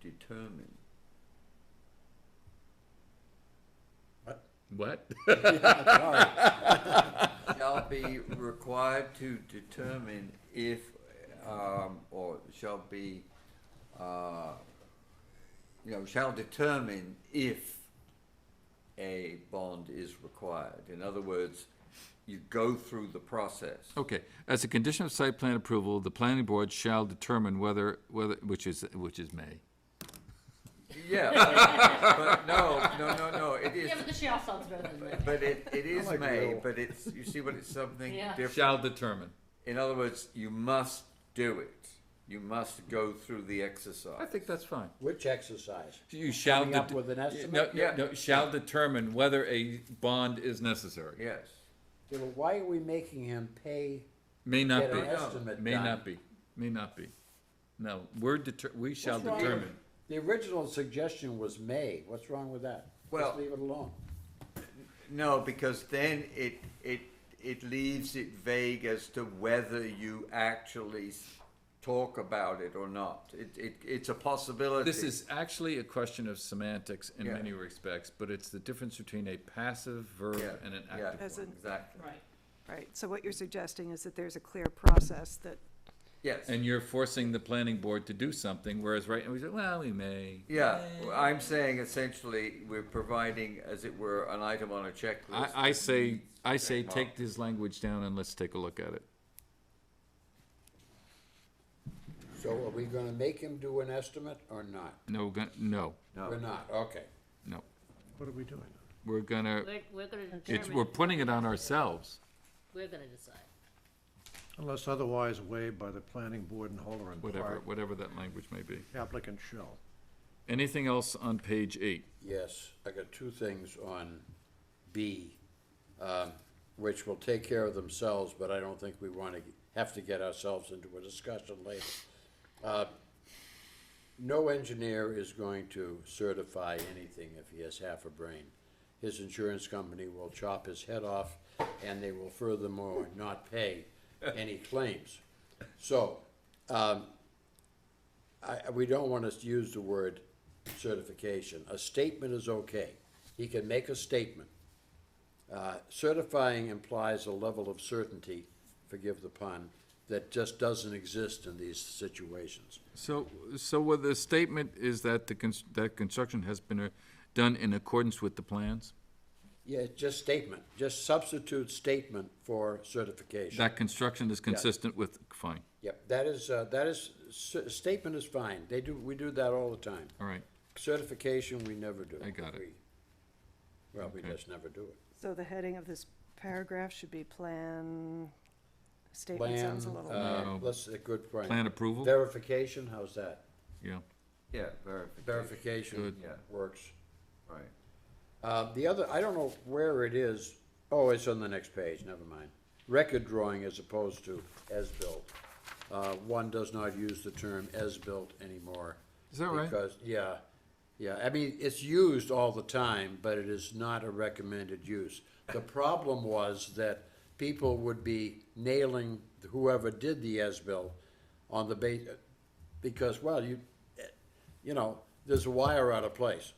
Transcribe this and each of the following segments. determine. What? Shall be required to determine if, um, or shall be, uh, you know, shall determine if a bond is required. In other words, you go through the process. Okay, as a condition of site plan approval, the planning board shall determine whether, whether, which is, which is May. Yeah, but, but no, no, no, no, it is, Yeah, but the shell sounds better than that. but it, it is like May, real. but it's, you see, but it's something Yeah. different. Shall determine. In other words, you must do it. You must go through the exercise. I think that's fine. Which exercise? You shall. Coming up det- with an no, estimate? No, Yeah. no, shall determine whether a bond is necessary. Yes. Yeah, but why are we making him pay, May get not an be, estimate may done? not be, may not be. No, we're deter, we shall What's wrong with- determine. The original suggestion was May, what's wrong with that? Well- Just leave it alone. No, because then it it it leaves it vague as to whether you actually s- talk about it or not. It, it it's a possibility. This is actually a question of semantics in Yeah. many respects, but it's the difference between a passive Yeah, verb and an yeah, active As one. in- exactly. Right. Right, so what you're suggesting is that there's a clear process that, Yes. And you're forcing the planning board to do something, whereas right now we say, well, we may. yeah, well, I'm saying essentially we're providing, as it were, an item on a checklist. I, I say, I say, Check mark. take this language down and let's take a look at it. So are we gonna make him do an estimate or not? No, we're gonna- no, No. We're not, okay. no. What are we doing? We're gonna, We're, we're gonna it's, we're determine, putting it on ourselves. we're gonna decide. Unless otherwise waived by the planning board and Holler and whatever, Clark, whatever that language may be. applicant shall. Anything else on page eight? Yes, I got two things on B, um, which will take care of themselves, but I don't think we wanna g- have to get ourselves into a discussion later. Uh, No engineer is going to certify anything if he has half a brain. His insurance company will chop his head off, and they will furthermore not pay any claims. So, um, I, I- we don't want to use the word certification. A statement is okay. He can make a statement. Uh, Certifying implies a level of certainty, forgive the pun, that just doesn't exist in these situations. So, so what the statement is that the, cons- that construction has been uh, done in accordance with the plans? Yeah, it's just statement, just substitute statement for certification. That construction is consistent with, fine, Yep, that is, uh, that is, cer- statement is fine. They do, we do that all the time. all right. Certification, we never do. I got it. We- Well, we Okay. just never do it. so the heading of this paragraph should be plan, statement sounds a Plan, little. uh, Uh, That's a good point. Plan approval? Verification, how's that? Yeah, Yeah, verification. Verification Good. Yeah. works. Right. Uh, the other, I don't know where it is, oh, it's on the next page, never mind. Record drawing as opposed to as-built. Uh, one does not use the term as-built anymore. Is that right? Because, yeah, yeah, I mean, it's used all the time, but it is not a recommended use. The problem was that people would be nailing whoever did the as-built on the base, because, well, you, you know, there's a wire out of place.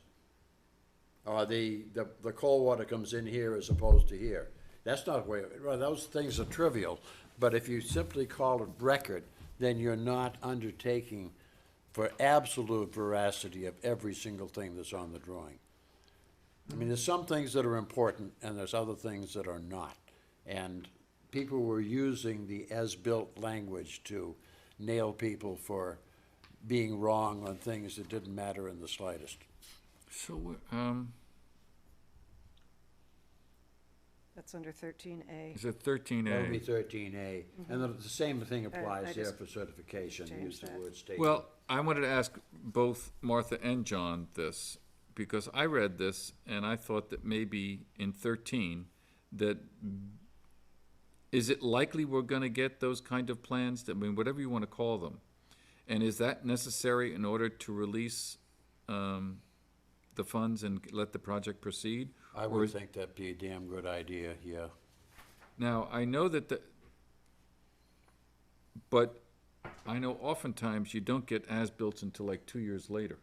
Uh, the, the, the cold water comes in here as opposed to here. That's not where, well, those things are trivial, but if you simply call it record, then you're not undertaking for absolute veracity of every single thing that's on the drawing. I mean, there's some things that are important and there's other things that are not. And people were using the as-built language to nail people for being wrong on things that didn't matter in the slightest. so, we're, um, That's under thirteen A. is it thirteen A? That would be thirteen A, and the, the same thing right, Uh, I applies there just for certification, changed use the that. word statement. Well, I wanted to ask both Martha and John this, because I read this and I thought that maybe in thirteen, that is it likely we're gonna get those kind of plans, I mean, whatever you wanna call them? And is that necessary in order to release, um, the funds and let the project proceed? I or would is- think that'd be a damn good idea, yeah. now, I know that the, but I know oftentimes you don't get as-built until like two years later.